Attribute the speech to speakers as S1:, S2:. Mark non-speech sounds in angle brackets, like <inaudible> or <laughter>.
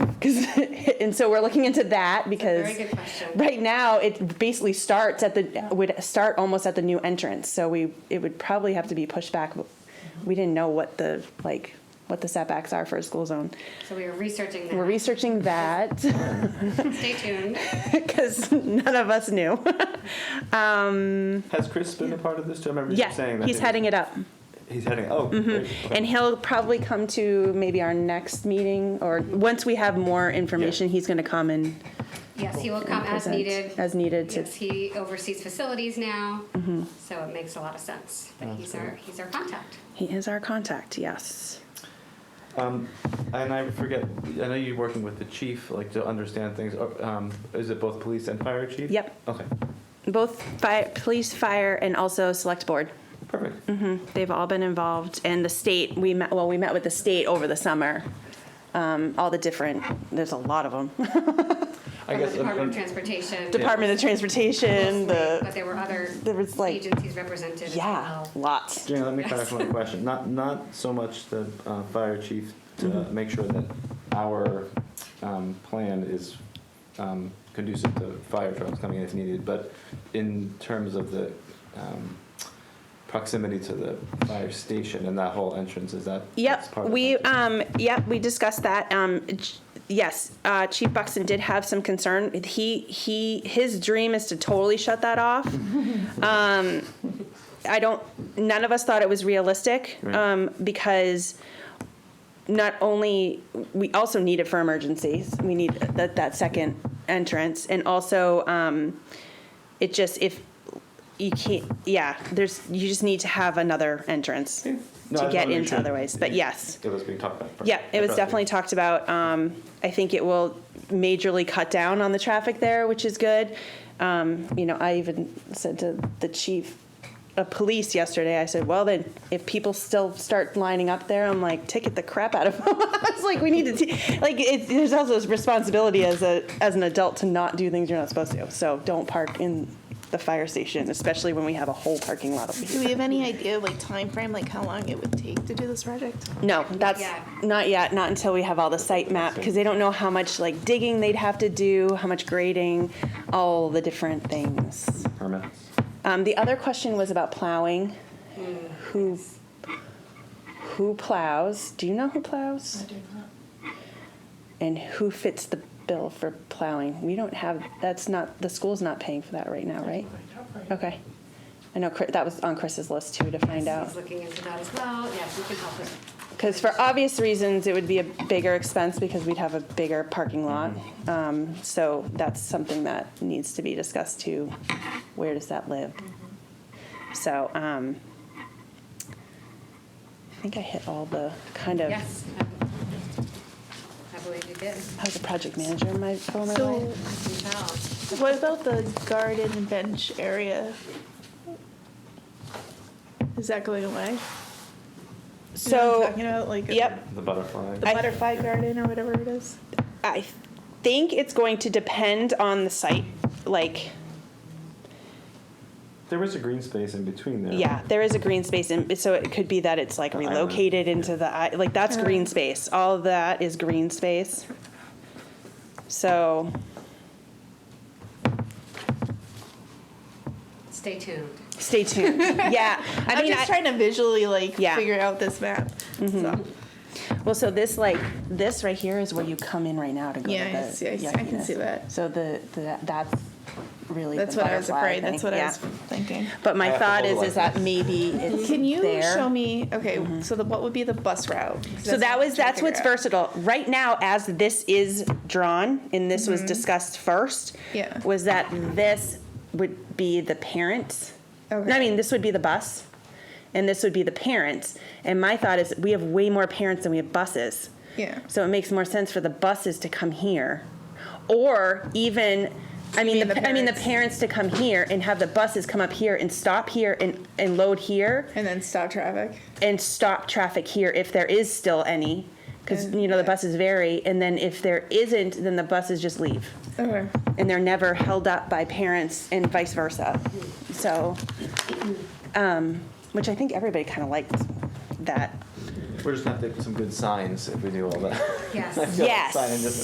S1: Because <laughs> and so we're looking into that because
S2: very good question.
S1: right now it basically starts at the would start almost at the new entrance. So we it would probably have to be pushed back.
S2: Mm-hmm.
S1: We didn't know what the like what the setbacks are for a school zone.
S2: So we are researching
S1: We're
S2: that.
S1: researching that <laughs>
S2: Stay tuned.
S1: because none of us knew. um,
S3: Has Chris been a part of this too? I remember
S1: yeah,
S3: you saying that.
S1: he's heading it up.
S3: He's heading. Oh, great. Okay.
S1: And he'll probably come to maybe our next meeting or once we have more information, he's going to come and
S2: Yes, he will come as
S1: present
S2: needed.
S1: As needed to Mm-hmm.
S2: Yes, he oversees facilities now, so it makes a lot of sense. But he's our, he's our contact.
S1: He is our contact, yes.
S3: Um, and I forget. I know you're working with the chief, like to understand things. Uh, Um, is it both police and fire chief?
S1: Yep.
S3: Okay.
S1: Both fire, police, fire, and also select board. Mm-hmm.
S3: Perfect.
S1: They've all been involved, and the state, we met, well, we met with the state over the summer. Um, all the different, there's a lot of them.
S3: I
S2: From the
S3: guess. um,
S2: Department of
S3: um,
S2: Transportation.
S1: Department of Transportation,
S2: But
S1: the,
S2: there were other
S1: there was like,
S2: agencies represented as
S1: yeah,
S2: well.
S1: lots.
S3: Jane, let me clarify
S1: <laughs>
S3: my question. Not not so much the uh, fire chief to
S1: Mm-hmm.
S3: make sure that our um, plan is um, conducive to fire trucks coming in if needed, but in terms of the um, proximity to the fire station and that whole entrance, is that that's
S1: Yep,
S3: part of
S1: we,
S3: that too?
S1: um, yep, we discussed that. Um, j- yes, uh, Chief Buxton did have some concern. He, he, his dream is to totally shut that
S3: <laughs>
S1: off. Um, I don't, none of us thought it was realistic,
S3: Right.
S1: um, because not only, we also need it for emergencies. We need that, that second entrance. And also, um, it just, if, you can't, yeah, there's, you just need to have another entrance
S3: Yeah. No, I
S1: to
S3: just wanted
S1: get
S3: make
S1: into
S3: sure
S1: other ways, but
S3: it-
S1: yes.
S3: It was being talked about. first.
S1: Yeah, it was
S3: Okay.
S1: definitely talked about. Um, I think it will majorly cut down on the traffic there, which is good. Um, you know, I even said to the chief of police yesterday, I said, well, then if people still start lining up there, I'm like, ticket the crap out of them. <laughs> I was like, we need to, t-. like, it, there's also this responsibility as a, as an adult to not do things you're not supposed to. So don't park in the fire station, especially when we have a whole parking lot of people.
S4: Do we have any idea, like time frame, like how long it would take to do this project?
S1: No, that's
S2: yet.
S1: not yet, not until we have all the site map, because they don't know how much like digging they'd have to do, how much grading, all the different things.
S3: Permits.
S1: Um, the other question was about plowing. Who, who plows? Do you know who plows?
S4: do not.
S1: And who fits the bill for plowing? We don't have, that's not, the school's not paying for that right now, right? Okay. I know Chri- that was on Chris's list too, to find out.
S2: He's looking into that as well. Yes, we can help with
S1: Because for obvious reasons, it would be a bigger expense because we'd have a bigger parking lot.
S4: Mm-hmm.
S1: Um, So that's something that needs to be discussed too. Where does that live?
S4: Mm-hmm.
S1: So um, I think I hit all the kind of,
S2: Yes. I believe you did.
S1: I was a project manager in my former
S4: So,
S1: life.
S2: I can tell.
S4: what about the garden bench area? Is that going away? You know what I'm
S1: So,
S4: talking about like
S1: yep,
S3: The butterfly.
S4: the
S1: I-
S4: butterfly garden or whatever it is.
S1: I think it's going to depend on the site. Like,
S3: There was a green space in between there.
S1: Yeah, there is a green space, and so it could be that it's like
S3: The island,
S1: relocated into the, i- like, that's
S4: Alright.
S1: green space. All of that is green space. So,
S2: Stay tuned.
S1: stay
S4: <laughs>
S1: tuned. Yeah, I
S4: I'm
S1: mean,
S4: just
S1: I-
S4: trying to visually like
S1: Yeah. Mm-hmm.
S4: figure out this map. So,
S1: well, so this, like, this right here is where you come in right now to go to
S4: Yeah, I
S1: the
S4: see, I see, I can
S1: yuckiness.
S4: see that.
S1: So the, the, that's really
S4: that's
S1: the
S4: what I was
S1: butterfly
S4: afraid. That's
S1: thing,
S4: what I
S1: yeah.
S4: was thinking.
S1: But
S3: I
S1: my
S3: have to
S1: thought
S3: hold it
S1: is,
S3: like
S1: is that
S3: this.
S1: maybe it's
S4: Can you
S1: Mm-hmm. there. Mm-hmm.
S4: show me? Okay, so the, what would be the bus route? 'Cause
S1: So that
S4: what I'm
S1: was
S4: trying to
S1: that's what's
S4: figure out.
S1: versatile. Right now, as this is drawn, and this was discussed first,
S4: Mm-hmm. Yeah.
S1: was that this would be the parent. No, I
S4: Okay.
S1: mean, this would be the bus, and this would be the parents. And my thought is, we have way more parents than we have buses.
S4: Yeah.
S1: So it makes more sense for the buses to come here, or even. I mean,
S4: mean
S1: the,
S4: the
S1: I mean the
S4: parents.
S1: parents to come here and have the buses come up here and stop here and, and load here
S4: And then stop traffic.
S1: and stop traffic here if there is still any, because
S4: Okay.
S1: you know the buses vary. And then if there isn't, then the buses just leave,
S4: Okay.
S1: and they're never held up by parents and vice versa. So, um, which I think everybody kind of liked that.
S3: We're just gonna have to get some good signs if we do all that. <laughs>
S2: Yes.
S3: Yeah,
S1: Yes.
S3: sign in just-